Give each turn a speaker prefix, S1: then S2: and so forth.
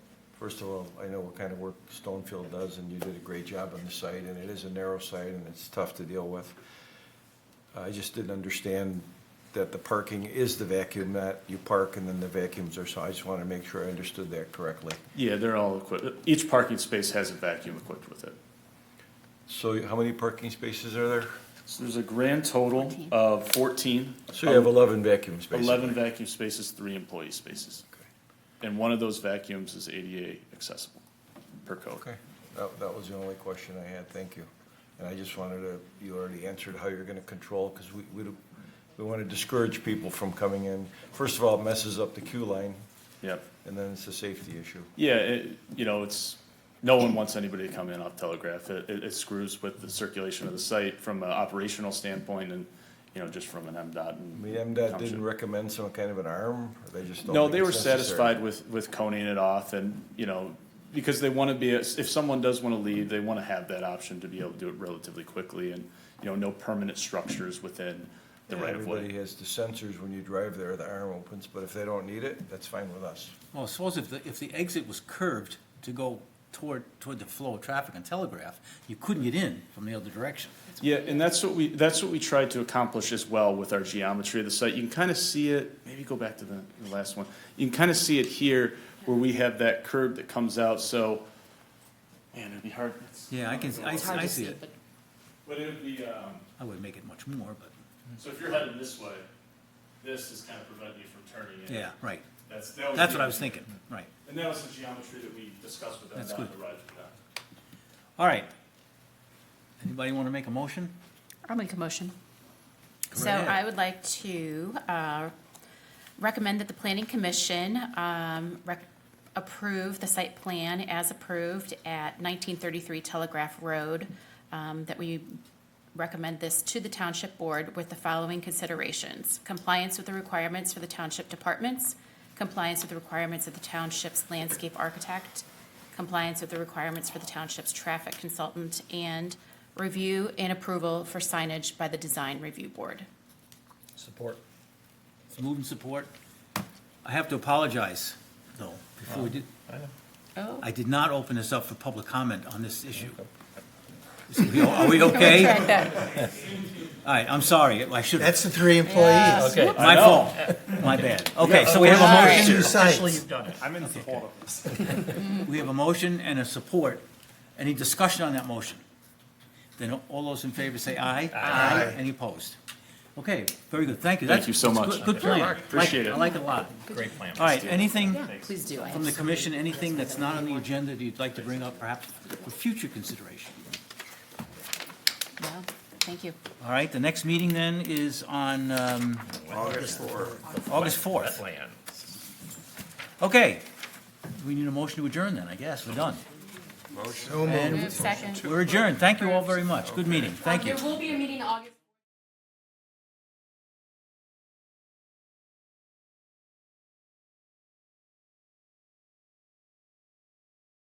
S1: First of all, I know what kind of work Stonefield does, and you did a great job on the site, and it is a narrow site, and it's tough to deal with. I just didn't understand that the parking is the vacuum, not you park and then the vacuums are, so I just wanted to make sure I understood that correctly.
S2: Yeah, they're all equipped, each parking space has a vacuum equipped with it.
S1: So how many parking spaces are there?
S2: So there's a grand total
S3: Fourteen.
S2: of fourteen. Um,
S1: So you have eleven vacuum spaces?
S2: Eleven vacuum spaces, three employee spaces.
S1: Okay.
S2: And one of those vacuums is ADA accessible per code.
S1: Okay, that, that was the only question I had, thank you. And I just wanted to, you already answered how you're gonna control, because we, we, don't- we wanna discourage people from coming in. First of all, it messes up the queue line,
S2: Yep.
S1: and then it's a safety issue.
S2: Yeah, it, you know, it's, no one wants anybody to come in off Telegraph. It, it it screws with the circulation of the site from an operational standpoint and, you know, just from an MDOT
S1: I
S2: and.
S1: mean, MDOT
S2: Township.
S1: didn't recommend some kind of an arm, or they just don't
S2: No,
S1: think
S2: they
S1: it's
S2: were
S1: necessary?
S2: satisfied with, with coning it off and, you know, because they wanna be, a- if someone does wanna leave, they wanna have that option to be able to do it relatively quickly and, you know, no permanent structures within the
S1: Yeah,
S2: right of way.
S1: Everybody has the sensors when you drive there, the arm opens, but if they don't need it, that's fine with us.
S4: Well, suppose if the, if the exit was curved to go toward, toward the flow of traffic on Telegraph, you couldn't get in from the other direction.
S2: Yeah, and that's what we, that's what we tried to accomplish as well with our geometry of the site. You can kind of see it, maybe go back to the, the last one. You can kind of see it here where we have that curb that comes out, so, man, it'd be hard.
S4: Yeah, I can, I,
S3: It's hard
S4: I
S3: to
S4: see
S3: see,
S4: it.
S3: but
S2: But it would be, um,
S4: I would make it much more, but,
S2: so if you're heading this way, this is kind of preventing you from turning in.
S4: yeah, right.
S2: That's, that was.
S4: That's
S2: the-
S4: what I was thinking, right.
S2: And that was the geometry that we discussed with them
S4: That's
S2: down
S4: good.
S2: the ride for that.
S4: All right. Anybody want to make a motion?
S3: I'll make a motion. So
S4: Right.
S3: I would like to uh, recommend that the planning commission um, rec- approve the site plan as approved at 1933 Telegraph Road, um, that we recommend this to the township board with the following considerations. Compliance with the requirements for the township departments, compliance with the requirements of the township's landscape architect, compliance with the requirements for the township's traffic consultant, and review and approval for signage by the design review board.
S4: Support. It's moved and support. I have to apologize, though, before we did,
S3: Oh.
S4: I did not open this up for public comment on this issue. So we- Are we okay? All right, I'm sorry, I should have,
S5: That's the three employees.
S6: Okay.
S4: my fault, my bad. Okay, so we have a motion.
S5: Two
S6: Officially,
S5: sites.
S6: you've done it.
S2: I'm in support of this.
S4: We have a motion and a support. Any discussion on that motion? Then all those in favor say aye. Aye. Any opposed? Okay, very good, thank you.
S2: Thank
S4: That's-
S2: you so
S4: that's
S2: much.
S4: good- Good plan. Like-
S2: Appreciate it.
S4: I like it a lot.
S6: Great plan.
S4: All right, anything
S3: Please do.
S4: from the commission, anything that's not on the agenda that you'd like to bring up perhaps for future consideration?
S3: Well, Thank you.
S4: All right, the next meeting then is on um,
S1: August fourth.
S4: August 4th.
S6: Plan.
S4: Okay, we need a motion to adjourn then, I guess, we're done.
S5: So moved.
S4: And
S3: Second.
S4: we're adjourned, thank you all very much, good meeting, thank you.
S3: will be a meeting August.